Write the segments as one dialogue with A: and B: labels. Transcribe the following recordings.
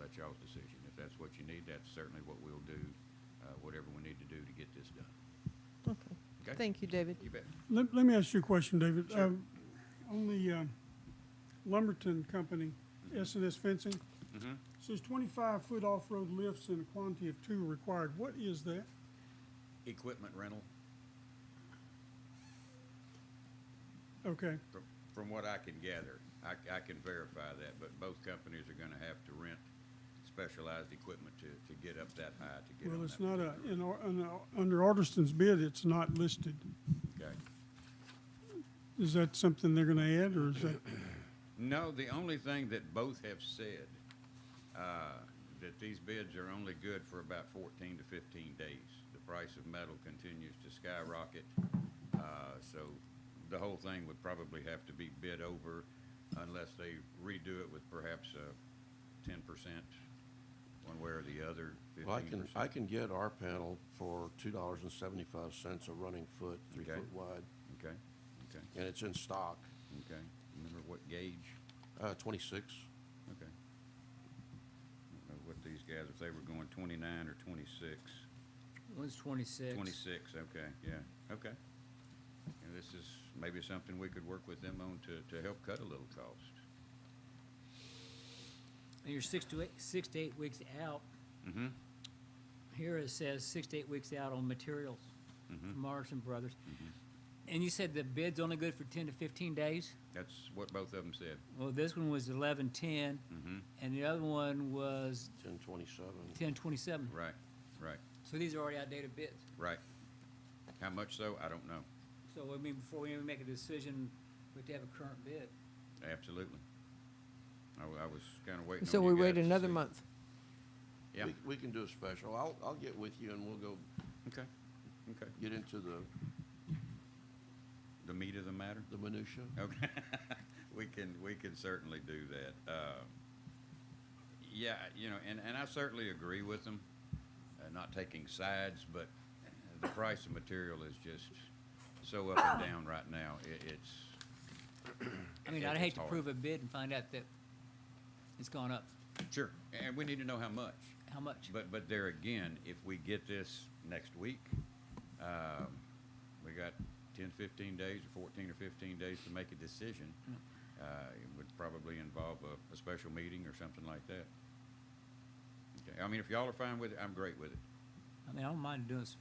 A: that's y'all's decision. If that's what you need, that's certainly what we'll do, uh, whatever we need to do to get this done.
B: Okay.
A: Okay.
B: Thank you, David.
A: You bet.
C: Let, let me ask you a question, David.
A: Sure.
C: Um, On the um, Lumberton Company, S and S fencing, says twenty-five foot off-road lifts in a quantity of two required. What is that?
A: Equipment rental,
C: Okay,
A: from, from what I can gather, I, I can verify that, but both companies are gonna have to rent specialized equipment to, to get up that high, to get on
C: well,
A: that.
C: it's not a, in, our- in our- under Artiston's bid, it's not listed.
A: Okay.
C: Is that something they're gonna add, or is that,
A: No, the only thing that both have said, uh, that these bids are only good for about fourteen to fifteen days. The price of metal continues to skyrocket, uh, so the whole thing would probably have to be bid over unless they redo it with perhaps uh ten percent, one way or the other,
D: Well, I
A: fifteen
D: can,
A: percent.
D: I can get our panel for two dollars and seventy-five cents a running foot, three
A: Okay.
D: foot wide,
A: Okay, okay,
D: and it's in stock,
A: okay. Remember what gauge?
D: uh, twenty-six.
A: Okay. I don't know what these guys, if they were going twenty-nine or twenty-six.
E: One's twenty-six.
A: Twenty-six, okay, yeah, okay. And this is maybe something we could work with them on to, to help cut a little cost.
E: And you're six to eight, six to eight weeks out.
A: Mm-hmm.
E: Here it says six to eight weeks out on materials
A: Mhm.
E: from Morrison Brothers.
A: Mm-hmm.
E: And you said the bid's only good for ten to fifteen days?
A: That's what both of them said.
E: Well, this one was eleven ten,
A: Mm-hmm.
E: and the other one was
D: Ten twenty-seven.
E: ten twenty-seven.
A: Right, right,
E: So these are already outdated bids.
A: right. How much so, I don't know.
E: So, I mean, before we even make a decision, we have to have a current bid.
A: Absolutely. I, wa- I was kinda waiting
B: So
A: on
B: we
A: you
B: wait
A: guys to
B: another
A: see.
B: month.
A: Yeah,
D: We, we can do a special. I'll, I'll get with you and we'll go
A: okay, okay.
D: get into the,
A: The meat of the matter?
D: the minutia.
A: Okay. We can, we can certainly do that. Uh, Yeah, you know, and, and I certainly agree with them, uh, not taking sides, but the price of material is just so up and down right now. It, it's,
E: I mean,
A: Yeah,
E: I'd
A: it's
E: hate to
A: hard.
E: prove a bid and find out that it's gone up.
A: sure, and we need to know how much.
E: How much?
A: But, but there again, if we get this next week, um, we got 10, 15 days, or 14 or 15 days to make a decision. Uh, It would probably involve a, a special meeting or something like that. Okay, I mean, if y'all are fine with it, I'm great with it.
E: I mean, I don't mind doing this.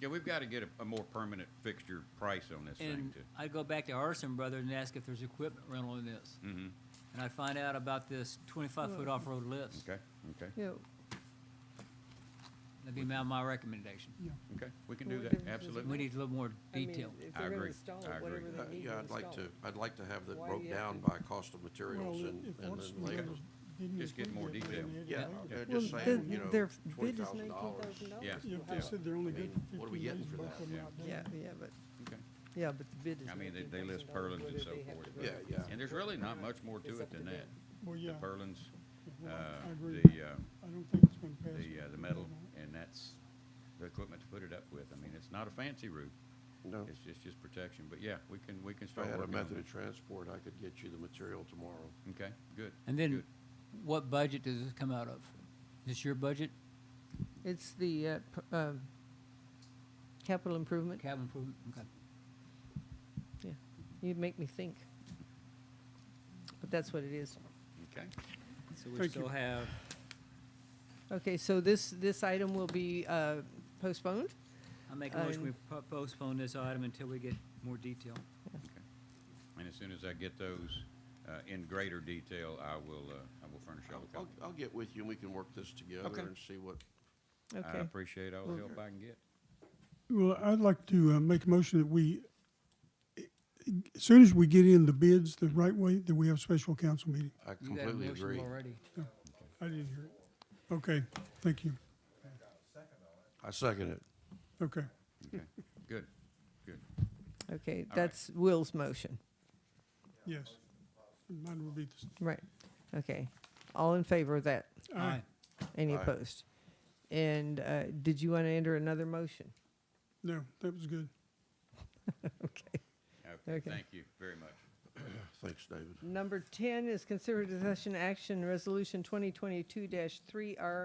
A: Yeah, we've got to get a, a more permanent fixture price on this thing
E: And
A: too.
E: I'd go back to Arson Brothers and ask if there's equipment rental in this.
A: Mm-hmm,
E: And I'd find out about this twenty-five foot off-road list.
A: okay, okay,
B: Yeah,
E: That'd be my, my recommendation.
C: yeah,
A: okay, we can
B: Well,
A: do
B: we
A: that,
B: can-
E: We
A: absolutely.
E: need a little more
B: I mean,
E: detail.
B: If
A: I
B: they're gonna
A: agree.
B: install
A: I
B: it, whatever
A: agree.
B: they
D: Uh,
B: need to
D: Yeah, I'd like
B: install.
D: to, I'd like to have that
B: Why do
D: broke
B: you have
D: down
B: to-
D: by cost of materials
C: well,
D: and,
C: if Artiston
D: and then
C: didn't
D: layout.
C: didn't
A: Just get
C: include
A: more
C: that, then
A: detail.
C: they'd add
D: Yeah,
C: it
D: yeah,
C: later.
B: Well,
D: just
B: the-
D: saying, you know,
B: their bid
D: twenty
B: is
D: thousand
B: nineteen
D: dollars.
B: thousand dollars.
A: Yeah.
C: Yeah, if they said they're only
D: I
C: good
D: mean,
C: for
D: what are we
C: fifteen
D: getting
C: days,
D: for
C: both
D: that?
C: of them
A: Yeah.
C: out
B: Yeah,
C: there.
B: yeah, but,
A: Okay.
B: yeah, but the bid is.
A: I mean, they,
B: nineteen
A: they list
B: thousand
A: purlins and
B: dollars, whether
A: so
B: they have
A: forth.
B: to
A: but-
B: go
D: Yeah, yeah.
A: And there's really not much more
B: It's
A: to it
B: up to
A: than that.
B: them.
C: Well,
A: The
C: yeah,
A: purlins,
C: well, I- I
A: uh,
C: agree.
A: the, uh,
C: I don't think it's gonna pass.
A: the, uh, the metal, and that's the equipment to put it up with. I mean, it's not a fancy roof.
D: No.
A: It's just, just protection, but yeah, we can, we can
D: If I
A: start
D: had
A: working
D: a
A: on
D: method of
A: that.
D: transport, I could get you the material tomorrow.
A: Okay, good.
E: And then,
A: good.
E: what budget does this come out of? Is this your budget,
B: It's the, uh, p- um, capital improvement.
E: cabin improvement? Okay.
B: Yeah, you make me think. But that's what it is.
A: Okay,
E: So we
C: Thank
E: still
C: you.
E: have,
B: Okay, so this, this item will be uh, postponed?
E: I make a motion,
B: Um,
E: we po- postpone this item until we get more detail.
A: okay. And as soon as I get those, uh, in greater detail, I will, uh, I will furnish y'all a
D: I'll, I'll,
A: copy.
D: I'll get with you and we can work this together
A: Okay.
D: and see what,
A: I
B: Okay,
A: appreciate all the help I can get.
C: Well, I'd like to uh, make a motion that we, as soon as we get in the bids the right way, that we have a special council meeting.
D: I
E: You got a
D: completely
E: motion
D: agree.
E: already.
C: I didn't hear it. Okay, thank you.
D: I second it.
C: Okay.
A: Okay, good, good.
B: okay,
A: right.
B: that's Will's motion,
C: Yes. Mine will be this.
B: right, okay. All in favor of that?
E: Aye.
B: Any
D: Aye.
B: opposed? And uh, did you want to enter another motion?
C: No, that was good.
B: Okay,
A: Okay,
B: Okay.
A: thank you very much.
D: Thanks, David.
B: Number 10 is considered discussion action, Resolution 2022-3R